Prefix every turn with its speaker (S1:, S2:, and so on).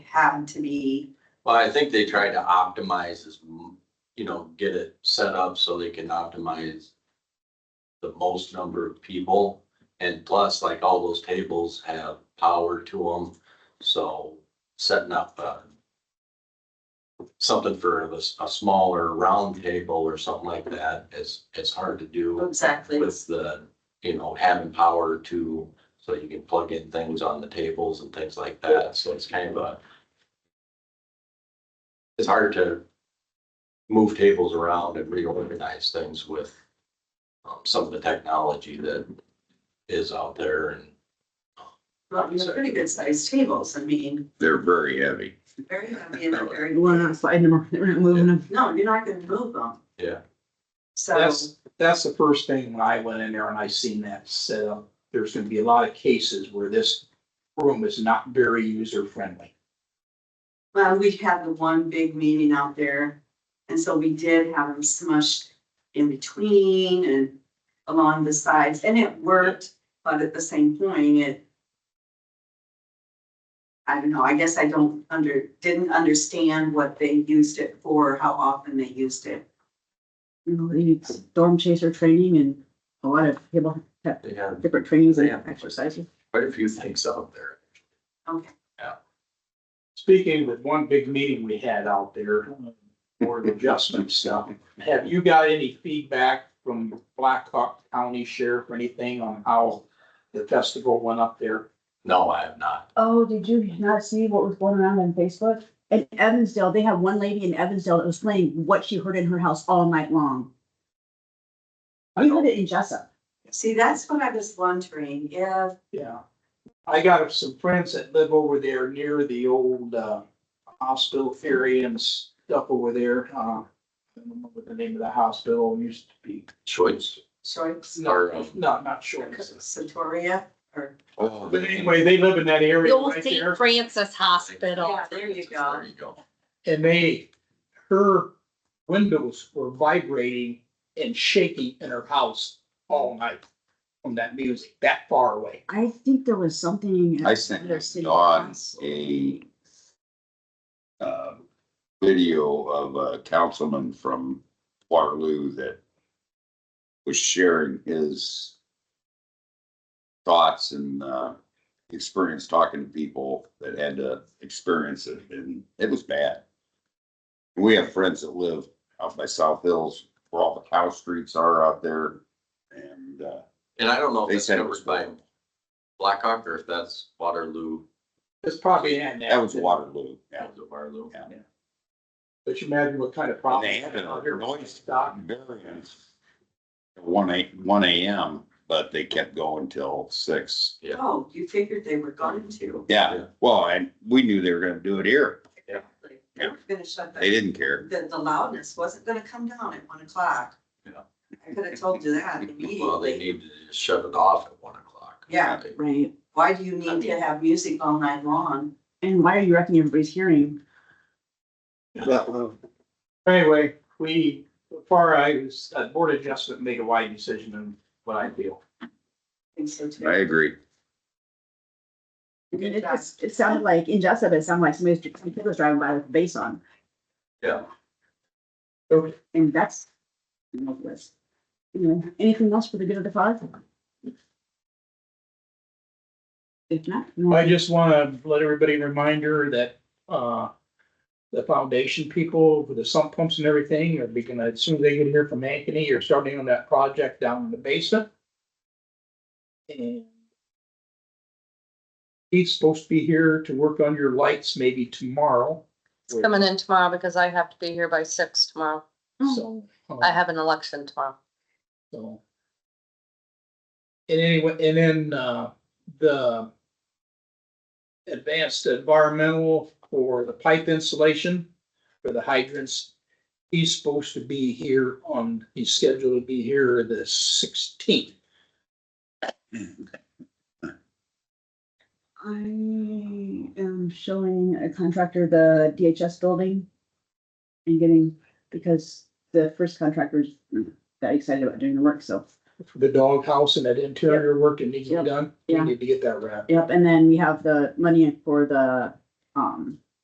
S1: have to be,
S2: Well, I think they try to optimize as, m- you know, get it set up so they can optimize the most number of people. And plus, like all those tables have power to them, so setting up uh something for a, s- a smaller round table or something like that is, it's hard to do
S1: exactly.
S2: with the, you know, having power to, so you can plug in things on the tables and things like that. So it's kind of a it's hard to move tables around and reorganize things with um, some of the technology that is out there and
S1: Well, we have pretty good sized tables, I mean,
S3: They're very heavy.
S1: very heavy and they're very,
S4: We're not sliding them, we're not moving them.
S1: no, you're not gonna move them.
S2: Yeah.
S1: So,
S5: That's, that's the first thing when I went in there and I seen that set up. There's gonna be a lot of cases where this room is not very user friendly.
S1: well, we had the one big meeting out there, and so we did have them smushed in between and along the sides, and it worked, but at the same point, it I don't know, I guess I don't under, didn't understand what they used it for, how often they used it.
S4: You know, they need storm chaser training and a lot of people have
S2: they have
S4: different trainings and
S2: Yeah.
S4: exercises.
S2: quite a few things out there.
S5: Speaking with one big meeting we had out there, board adjustment stuff, have you got any feedback from Black Hawk County Sheriff or anything on how the festival went up there?
S2: No, I have not.
S4: Oh, did you not see what was going around on Facebook? In Evansdale, they had one lady in Evansdale that was playing what she heard in her house all night long. We heard it in Jessup.
S1: See, that's what I was wondering, if,
S5: Yeah. I got some friends that live over there near the old, uh, hospital ferry and stuff over there, uh. I don't remember what the name of the hospital used to be.
S2: Choice.
S1: Shorts,
S5: No,
S2: Or, um,
S5: no, not sure.
S1: Satoria, or,
S2: Oh,
S5: But anyway, they live in that
S6: The
S5: area
S6: old
S5: right
S6: St.
S5: there.
S6: Francis Hospital.
S1: yeah, there you go.
S2: There you go.
S5: And they, her windows were vibrating and shaking in her house all night from that music that far away.
S4: I think there was something.
S3: I
S4: at another
S3: sent
S4: city
S3: Dawn
S4: council.
S3: a uh, video of a councilman from Waterloo that was sharing his thoughts and uh, experience talking to people that had to experience it, and it was bad. We have friends that live out by South Hills, where all the cow streets are out there, and uh,
S2: And I don't know if
S3: they
S2: that's
S3: said it was
S2: covered by
S3: bad.
S2: Blackhawk or if that's Waterloo,
S5: It's probably an.
S3: That was Waterloo, yeah.
S2: that was Waterloo.
S3: Yeah.
S5: But you imagine what kind of problem.
S3: They had
S5: out
S3: a
S5: here with
S3: noise
S5: stock.
S3: variance. at One eight, one AM, but they kept going till six.
S1: Oh, you figured they were going to.
S3: Yeah,
S2: Yeah.
S3: well, and we knew they were gonna do it here.
S1: They were gonna shut the,
S3: They didn't care.
S1: the, the loudness wasn't gonna come down at one o'clock.
S2: Yeah.
S1: I could have told you that
S2: Well, they
S1: immediately.
S2: need to just shut it off at one o'clock.
S1: Yeah.
S2: They-
S4: Right.
S1: Why do you need to have music all night long?
S4: And why are you wrecking everybody's hearing?
S3: uh,
S5: Anyway, we, far I was, uh, board adjustment made a wide decision in what I feel.
S1: I think so too.
S3: I agree.
S4: I mean, it just, it sounded like, in Jessup, it sounded like somebody's, some kid was driving by with bass on.
S2: Yeah.
S5: Okay.
S4: And that's. hopeless. You know, anything else for the good of the cause? If not. no.
S5: I just wanna let everybody reminder that, uh, the foundation people with the sump pumps and everything are beginning, as soon as they get here from Ankeny, you're starting on that project down in the basement. And he's supposed to be here to work on your lights maybe tomorrow.
S6: It's coming in tomorrow because I have to be here by six tomorrow.
S5: So. uh,
S6: I have an election tomorrow.
S5: So. And anyway, and then, uh, the. Advanced environmental for the pipe insulation for the hydrants. He's supposed to be here on, he's scheduled to be here the sixteenth.
S4: I am showing a contractor the DHS building. And getting, because the first contractor's that excited about doing the work, so.
S5: for The doghouse and that interior work that needs to be
S4: Yep.
S5: done, we
S4: Yeah.
S5: need to get that wrapped.
S4: Yep, and then we have the money for the, um,